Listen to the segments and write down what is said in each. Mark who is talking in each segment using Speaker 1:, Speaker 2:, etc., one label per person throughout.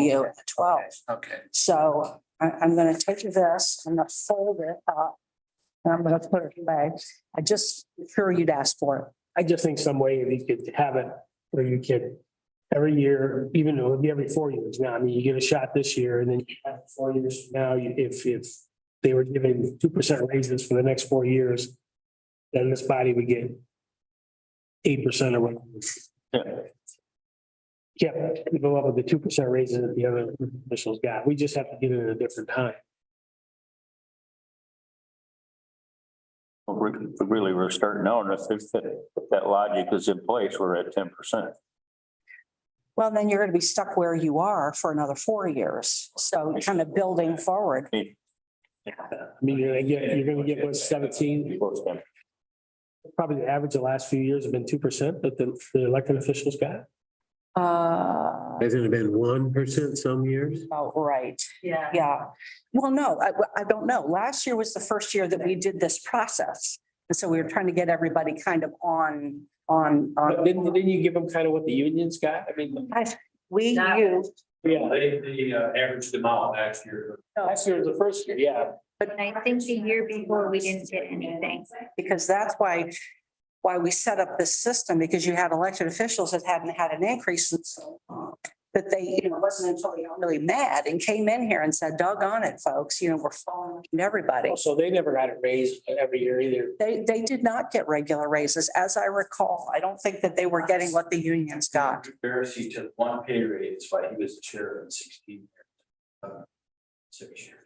Speaker 1: you at twelve.
Speaker 2: Okay,
Speaker 1: So I, I'm gonna take this, I'm gonna fold it up. And I'm gonna put it away. I just, sure you'd ask for it.
Speaker 3: I just think some way you could have it where you could every year, even though it'd be every four years now, I mean, you get a shot this year and then you have four years from now, you- if, if they were giving two percent raises for the next four years, then this body would get eight percent or whatever. Yeah, we go up with the two percent raises that the other officials got. We just have to get it at a different time.
Speaker 4: Well, re- Really, we're starting out, and if there's that, if that logic is in place, we're at ten percent.
Speaker 1: Well, then you're gonna be stuck where you are for another four years. So kind of building forward.
Speaker 3: I mean, you're gonna get, you're gonna get what seventeen, probably the average the last few years have been two percent that the, the elected officials got.
Speaker 1: Uh,
Speaker 5: Hasn't it been one percent some years?
Speaker 1: about right. Yeah. Yeah. Well, no, I, I don't know. Last year was the first year that we did this process. And so we were trying to get everybody kind of on, on,
Speaker 3: But
Speaker 1: on.
Speaker 3: didn't, didn't Uh, you give them kind of what the unions got? I mean.
Speaker 1: We,
Speaker 6: Not-
Speaker 1: you,
Speaker 3: Yeah,
Speaker 2: they, they uh, averaged them out last year.
Speaker 3: last year was the first year, yeah.
Speaker 6: And I think the year before, we didn't get anything.
Speaker 1: because that's why, why we set up this system, because you had elected officials that hadn't had an increase in so long. That they, you know, it wasn't until they got really mad and came in here and said, doggone it, folks, you know, we're following everybody.
Speaker 3: So they never got a raise every year either.
Speaker 1: They, they did not get regular raises, as I recall. I don't think that they were getting what the unions got.
Speaker 2: Barris, he took one pay raise, that's why he was the chair in sixteen. years. Uh, Six years.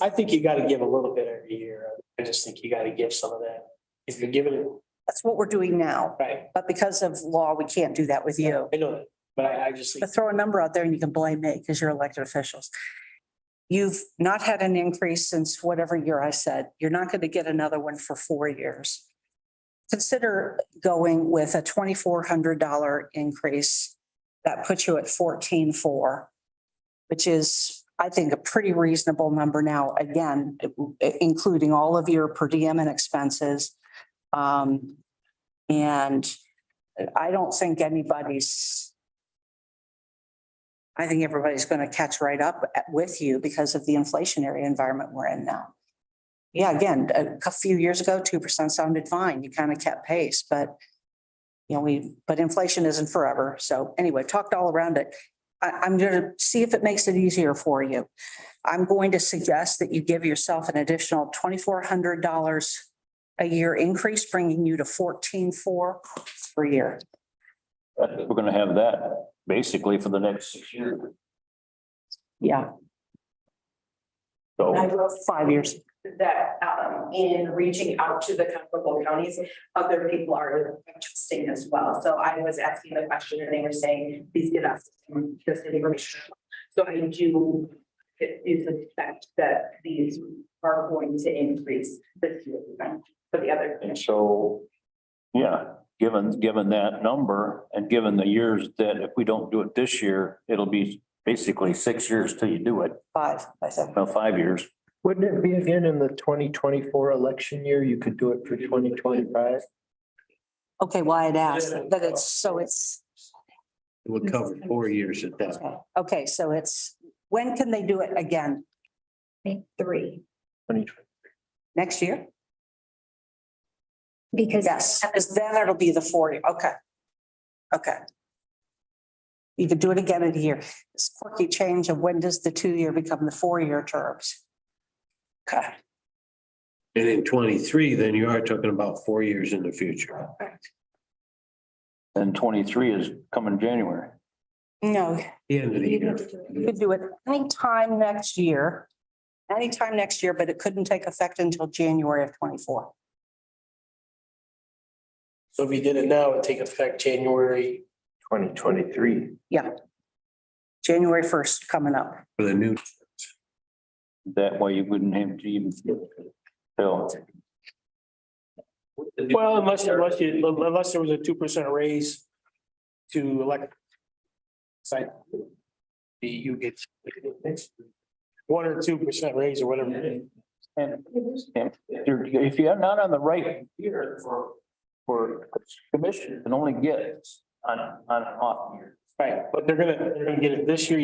Speaker 3: I think you gotta give a little bit every year. I just think you gotta give some of that. If you're giving it,
Speaker 1: That's what we're doing now,
Speaker 3: right,
Speaker 1: but because of law, we can't do that with you.
Speaker 3: I know that, but I, I just think.
Speaker 1: But throw a number out there and you can blame me because you're elected officials. You've not had an increase since whatever year I said. You're not going to get another one for four years. Consider going with a twenty-four hundred dollar increase. That puts you at fourteen-four, which is, I think, a pretty reasonable number now, again, i- including all of your per diem and expenses. Um, and I don't think anybody's I think everybody's going to catch right up at- with you because of the inflationary environment we're in now. Yeah, again, a cou- few years ago, two percent sounded fine. You kind of kept pace, but you know, we, but inflation isn't forever. So anyway, talked all around it. I, I'm going to see if it makes it easier for you. I'm going to suggest that you give yourself an additional twenty-four hundred dollars a year increase, bringing you to fourteen-four per year.
Speaker 4: We're gonna have that basically for the next six years.
Speaker 1: Yeah, I
Speaker 4: So
Speaker 1: wrote five years.
Speaker 7: that um in reaching out to the comparable counties, other people are interesting as well. So I was asking the question and they were saying, please give us this information. So I do it is a fact that these are going to increase this year for the other.
Speaker 4: and so, yeah, given, given that number and given the years that if we don't do it this year, it'll be basically six years till you do it,
Speaker 1: Five, I think.
Speaker 4: well, five years.
Speaker 8: Wouldn't it be again in the twenty twenty-four election year? You could do it for twenty twenty-five?
Speaker 1: Okay, well, I'd asked that it's, so it's,
Speaker 5: It would cover four years at that.
Speaker 1: okay, okay, so it's, when can they do it again?
Speaker 6: I think three,
Speaker 1: Next year?
Speaker 6: because.
Speaker 1: Yes, because then it'll be the four year, okay. Okay. You could do it again in a year. This quirky change of when does the two-year become the four-year terms? Okay,
Speaker 5: And in twenty-three, then you are talking about four years in the future.
Speaker 4: And twenty-three is coming January.
Speaker 1: no,
Speaker 5: The end of the
Speaker 6: You
Speaker 5: year.
Speaker 6: need to do
Speaker 1: you could do it anytime next year. Anytime next year, but it couldn't take effect until January of twenty-four.
Speaker 3: So if you did it now, it'd take effect January.
Speaker 8: Twenty twenty-three.
Speaker 1: January first coming up.
Speaker 5: For the new,
Speaker 4: That way you wouldn't have to even. Bill,
Speaker 3: Well, unless, unless you, unless there was a two percent raise to elect. Site. You get. One or two percent raise or whatever. it
Speaker 4: and and if you're- if you're not on the right year for, for commission, you can only get on, on an off year.
Speaker 3: is. Right, but they're gonna, they're gonna get it this year,